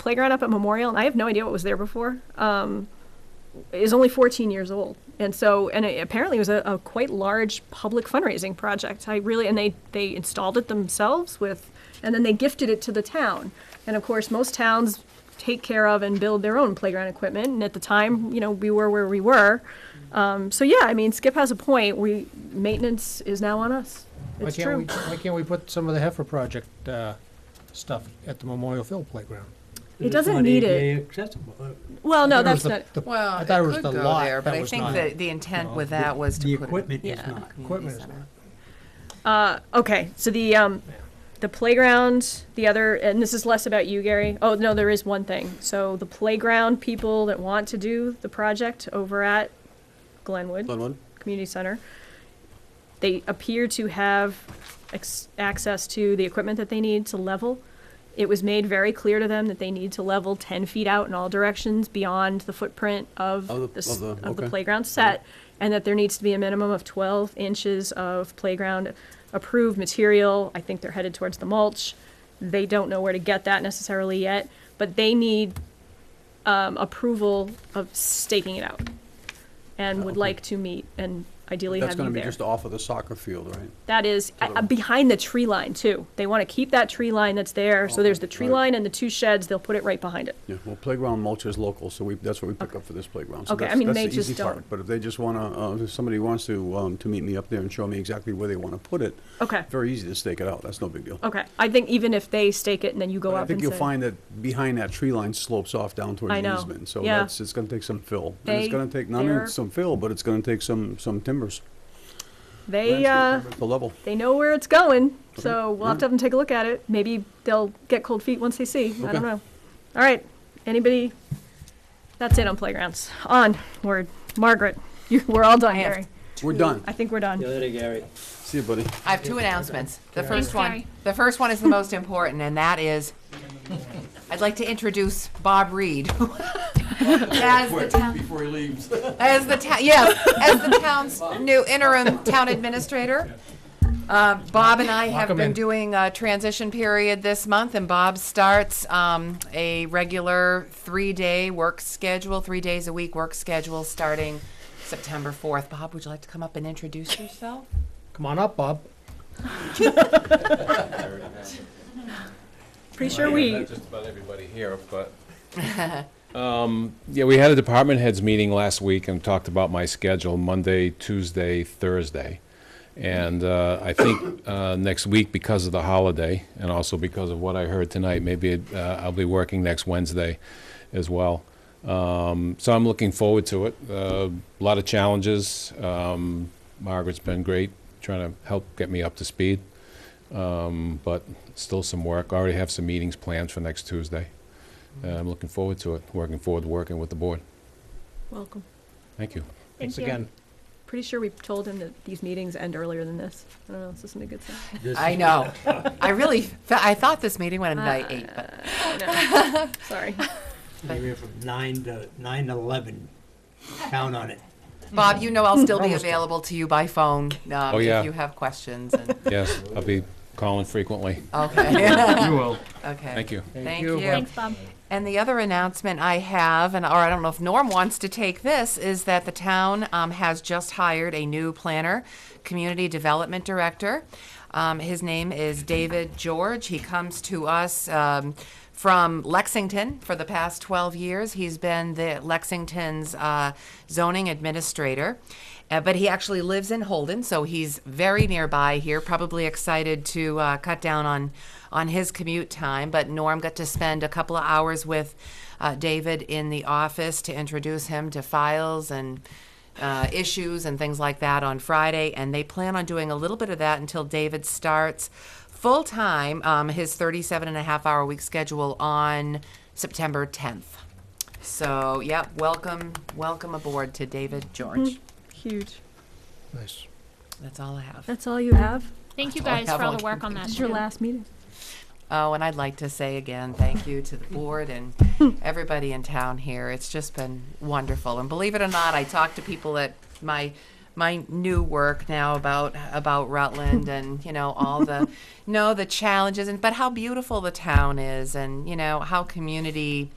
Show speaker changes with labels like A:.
A: playground up at Memorial, and I have no idea what was there before, um, is only 14 years old. And so, and it, apparently it was a, a quite large public fundraising project. I really, and they, they installed it themselves with, and then they gifted it to the town. And of course, most towns take care of and build their own playground equipment. And at the time, you know, we were where we were. Um, so yeah, I mean, Skip has a point. We, maintenance is now on us.
B: Why
A: It's
B: can't we,
A: true.
B: why can't we put some of the heifer project, uh, stuff at the Memorial Field playground?
A: It doesn't need it. Well, no,
B: I thought it was
A: that's not,
B: the- the-
C: Well,
B: I
C: it
B: thought was
C: could
B: the
C: go
B: lot
C: there, but
B: that
C: I
B: was
C: think
B: not-
C: that the intent with that was to
D: The
C: put it-
D: equipment is
C: yeah,
D: not.
C: community
B: Equipment is
C: center.
B: not.
A: Uh, okay, so the um, the playground, the other, and this is less about you, Gary. Oh no, there is one thing. So the playground people that want to do the project over at Glenwood Community Center, they appear to have ex- access to the equipment that they need to level. It was made very clear to them that they need to level ten feet out in all directions beyond the footprint of
E: Of the-
A: the, s-
E: of the-
A: of the
E: okay.
A: playground set, and that there needs to be a minimum of twelve inches of playground approved material. I think they're headed towards the mulch. They don't know where to get that necessarily yet, but they need um, approval of staking it out, and would
E: Okay.
A: like to meet and ideally
E: That's
A: have
E: gonna
A: you
E: be
A: there.
E: just off of the soccer field, right?
A: That is
E: the
A: uh,
E: right.
A: behind the tree line too. They want to keep that tree line that's there. So there's the
E: Okay,
A: tree
E: right.
A: line and the two sheds. They'll put it right behind it.
E: Yeah, well, playground mulch is local, so we, that's what we pick up for this playground. So
A: Okay, I
E: that's-
A: mean,
E: that's
A: they
E: the
A: just
E: easy part.
A: don't-
E: But if they just wanna, uh, if somebody wants to, um, to meet me up there and show me exactly where they wanna put it,
A: Okay.
E: very easy to stake it out, that's no big deal.
A: Okay. I think even if they stake it and then you go
E: But
A: up
E: I think
A: and
E: you'll
A: say-
E: find that behind that tree line slopes off down towards
A: I know.
E: the easement, so
A: Yeah.
E: that's, it's gonna take some fill. And
A: They-
E: it's gonna take, not
A: they're-
E: only some fill, but it's gonna take some, some timbers.
A: they
E: landscape
A: uh,
E: timbers To level.
A: they know where it's going. So
E: Okay,
A: we'll have to have them take a look at it. Maybe they'll get cold feet once they see. I
E: Okay.
A: don't know. All right. Anybody? That's it on playgrounds. On word, Margaret. You, we're all done,
C: I have
A: Gary.
E: We're done.
A: I think we're done.
D: Gary.
E: See you, buddy.
C: I have two announcements. The
F: Thanks,
C: first one,
F: Gary.
C: the first one is the most important, and that is, I'd like to introduce Bob Reed. As the town,
E: Before he leaves.
C: as the town, yes, as the town's new interim town administrator. Um, Bob and I have
B: him
C: been
B: in.
C: doing a transition period this month, and Bob starts um, a regular three-day work schedule, three days a week work schedule, starting September 4th. Bob, would you like to come up and introduce yourself?
B: Come on up, Bob.
A: Pretty sure
G: Yeah,
A: we.
G: not Just about everybody here, but. Um, Yeah, we had a department heads meeting last week and talked about my schedule, Monday, Tuesday, Thursday. And uh, I think uh, next week, because of the holiday, and also because of what I heard tonight, maybe it- uh, I'll be working next Wednesday as well. Um, So I'm looking forward to it. Uh, A lot of challenges. Um, Margaret's been great, trying to help get me up to speed Um, but still some work. I already have some meetings planned for next Tuesday. Uh, I'm looking forward to it, working forward to working with the board.
A: Welcome.
G: Thank you.
B: Thanks again.
A: Pretty sure we told him that these meetings end earlier than this. I don't know. This isn't a good sign.
C: I know. I really, fe- I thought this meeting went by eight, but
A: Sorry.
D: They were from nine to, nine to eleven. Count on it.
C: Bob, you know I'll still be available to you by phone um,
G: Oh, yeah.
C: if you have questions. And,
G: Yes, I'll be calling frequently.
C: okay.
B: You will.
C: okay.
G: Thank you.
C: Thank
B: you.
C: you.
F: Thanks, Bob.
C: And the other announcement I have, and or I don't know if Norm wants to take this, is that the town um, has just hired a new planner, community development director. Um, his name is David George. He comes to us um, from Lexington for the past 12 years. He's been the Lexington's uh, zoning administrator. Uh, but he actually lives in Holden, so he's very nearby here. Probably excited to uh, cut down on on his commute time. But Norm got to spend a couple of hours with uh, David in the office to introduce him to files and uh, issues and things like that on Friday. And they plan on doing a little bit of that until David starts full time um, his 37 and a half hour week schedule on September 10th. So, yeah, welcome, welcome aboard to David George.
A: Huge.
B: Nice.
C: That's all I have.
A: That's all you have?
F: Thank you
C: all I
F: guys
C: have
F: for all
C: on
F: the work on that.
A: This is your
F: too.
A: last meeting.
C: Oh, and I'd like to say again, thank you to the board and everybody in town here. It's just been wonderful. And believe it or not, I talk to people at my my new work now about about Rutland and you know all the no the challenges and but how beautiful the town is and you know how community